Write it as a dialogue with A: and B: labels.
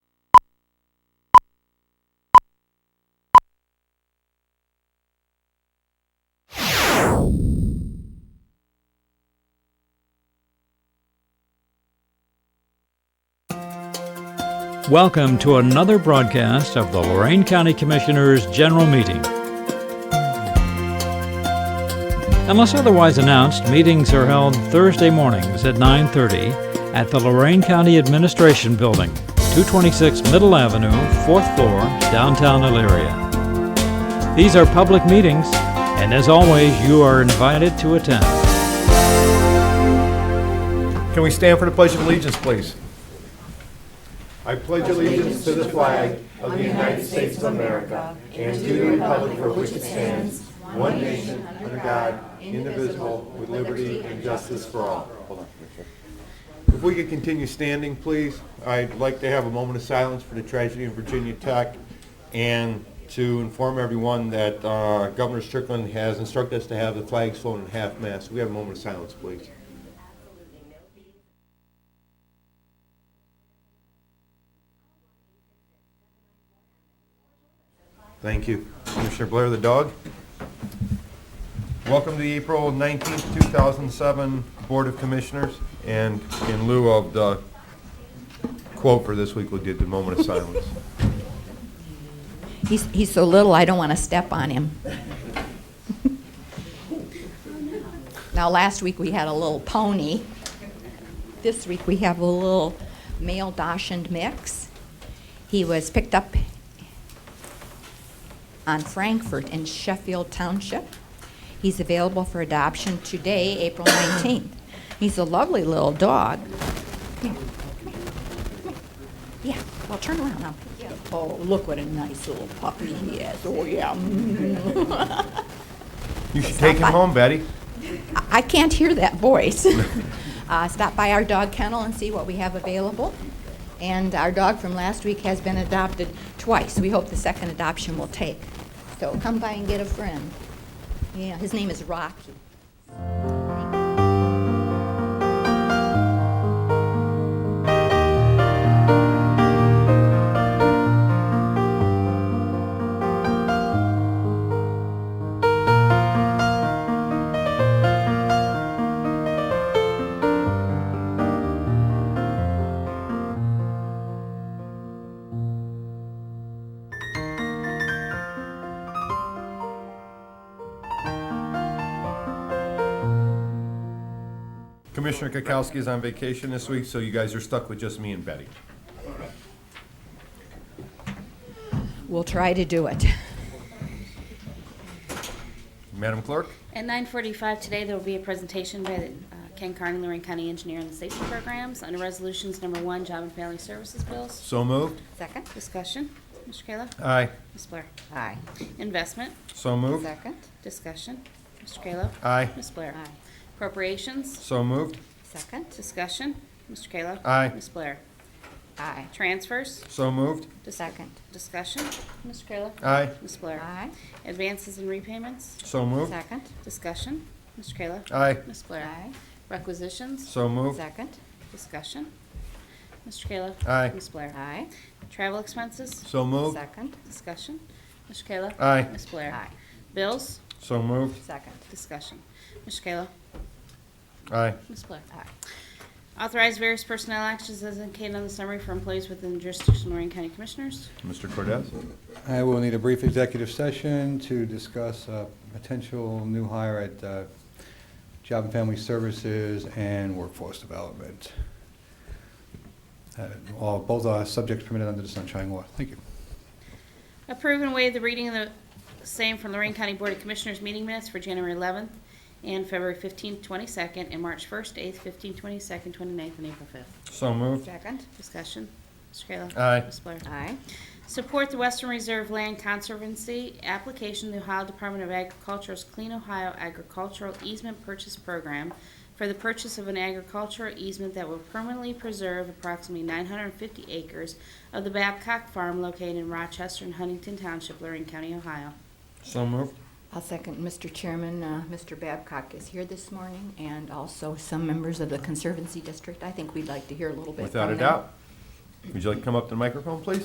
A: Welcome to another broadcast of the Lorraine County Commissioners' General Meeting. Unless otherwise announced, meetings are held Thursday mornings at 9:30 at the Lorraine County Administration Building, 226 Middle Avenue, 4th floor, downtown Elyria. These are public meetings, and as always, you are invited to attend.
B: Can we stand for the Pledge of Allegiance, please? If we could continue standing, please, I'd like to have a moment of silence for the tragedy in Virginia Tech and to inform everyone that uh, Governor Strickland has instructed us to have the flags flown in half-mast. We have a moment of silence, please. Thank you. Commissioner Blair, the dog? Welcome to the April 19, 2007 Board of Commissioners, and in lieu of the quote for this week, we did the moment of silence.
C: He's, he's so little, I don't want to step on him. Now, last week we had a little pony. This week we have a little male Dachshund mix. He was picked up on Frankfurt in Sheffield Township. He's available for adoption today, April 19th. He's a lovely little dog. Come here, come here, come here. Yeah, well, turn around now. Oh, look what a nice little puppy he is. Oh, yeah. mm.
B: You should take him home, Betty.
C: I- I can't hear that voice. Uh, Stop by our dog kennel and see what we have available. And our dog from last week has been adopted twice. We hope the second adoption will take. So come by and get a friend. Yeah, his name is Rocky.
B: Commissioner Kukowski is on vacation this week, so you guys are stuck with just me and Betty.
C: We'll try to do it.
B: Madam Clerk?
D: At 9:45 today, there will be a presentation by the, uh, Ken Carney, Lorraine County Engineer on the Safety Programs under Resolutions Number One, Job and Family Services Bills.
B: So moved.
C: Second?
D: Discussion, Mr. Kayla?
B: Aye.
D: Ms. Blair?
C: Aye.
D: Investment,
B: So moved.
C: Second?
D: discussion, Mr. Kayla?
B: Aye.
D: Ms. Blair?
C: Aye.
D: Appropriations,
B: So moved.
C: Second?
D: discussion, Mr. Kayla?
B: Aye.
D: Ms. Blair?
C: Aye.
D: Transfers,
B: So moved.
C: Second?
D: discussion, Mr. Kayla?
B: Aye.
D: Ms. Blair?
C: Aye.
D: Advances and repayments,
B: So moved.
C: Second?
D: discussion, Mr. Kayla?
B: Aye.
D: Ms. Blair? Requisitions,
B: So moved.
C: Second?
D: discussion, Mr. Kayla?
B: Aye.
D: Ms. Blair?
C: Aye.
D: Travel expenses,
B: So moved.
C: Second?
D: discussion. Mr. Kayla?
B: Aye.
D: Ms. Blair?
C: Aye.
D: Bills,
B: So moved.
C: Second?
D: discussion. Mr. Kayla?
B: Aye.
D: Ms. Blair?
C: Aye.
D: Authorize various personnel actions as indicated on the summary for employees within the jurisdiction of Lorraine County Commissioners.
B: Mr. Cortez?
E: I will need a brief executive session to discuss a potential new hire at uh, Job and Family Services and Workforce Development. Uh, All, both are subjects permitted under the Sunshine Law. Thank you.
D: Approve and waive the reading of the same from Lorraine County Board of Commissioners meeting minutes for January 11th and February 15th, 22nd, and March 1st, 8th, 15th, 22nd, 29th, and April 5th.
B: So moved.
C: Second?
D: Discussion. Mr. Kayla?
B: Aye.
D: Ms. Blair?
C: Aye.
D: Support the Western Reserve Land Conservancy application to the Ohio Department of Agriculture's Clean Ohio Agricultural Easement Purchase Program for the purchase of an agricultural easement that will permanently preserve approximately 950 acres of the Babcock Farm located in Rochester and Huntington Township, Lorraine County, Ohio.
B: So moved.
C: I'll second Mr. Chairman. Uh, Mr. Babcock is here this morning, and also some members of the Conservancy District. I think we'd like to hear a little bit from
B: Without a
C: them.
B: doubt. Would you like to come up to the microphone, please?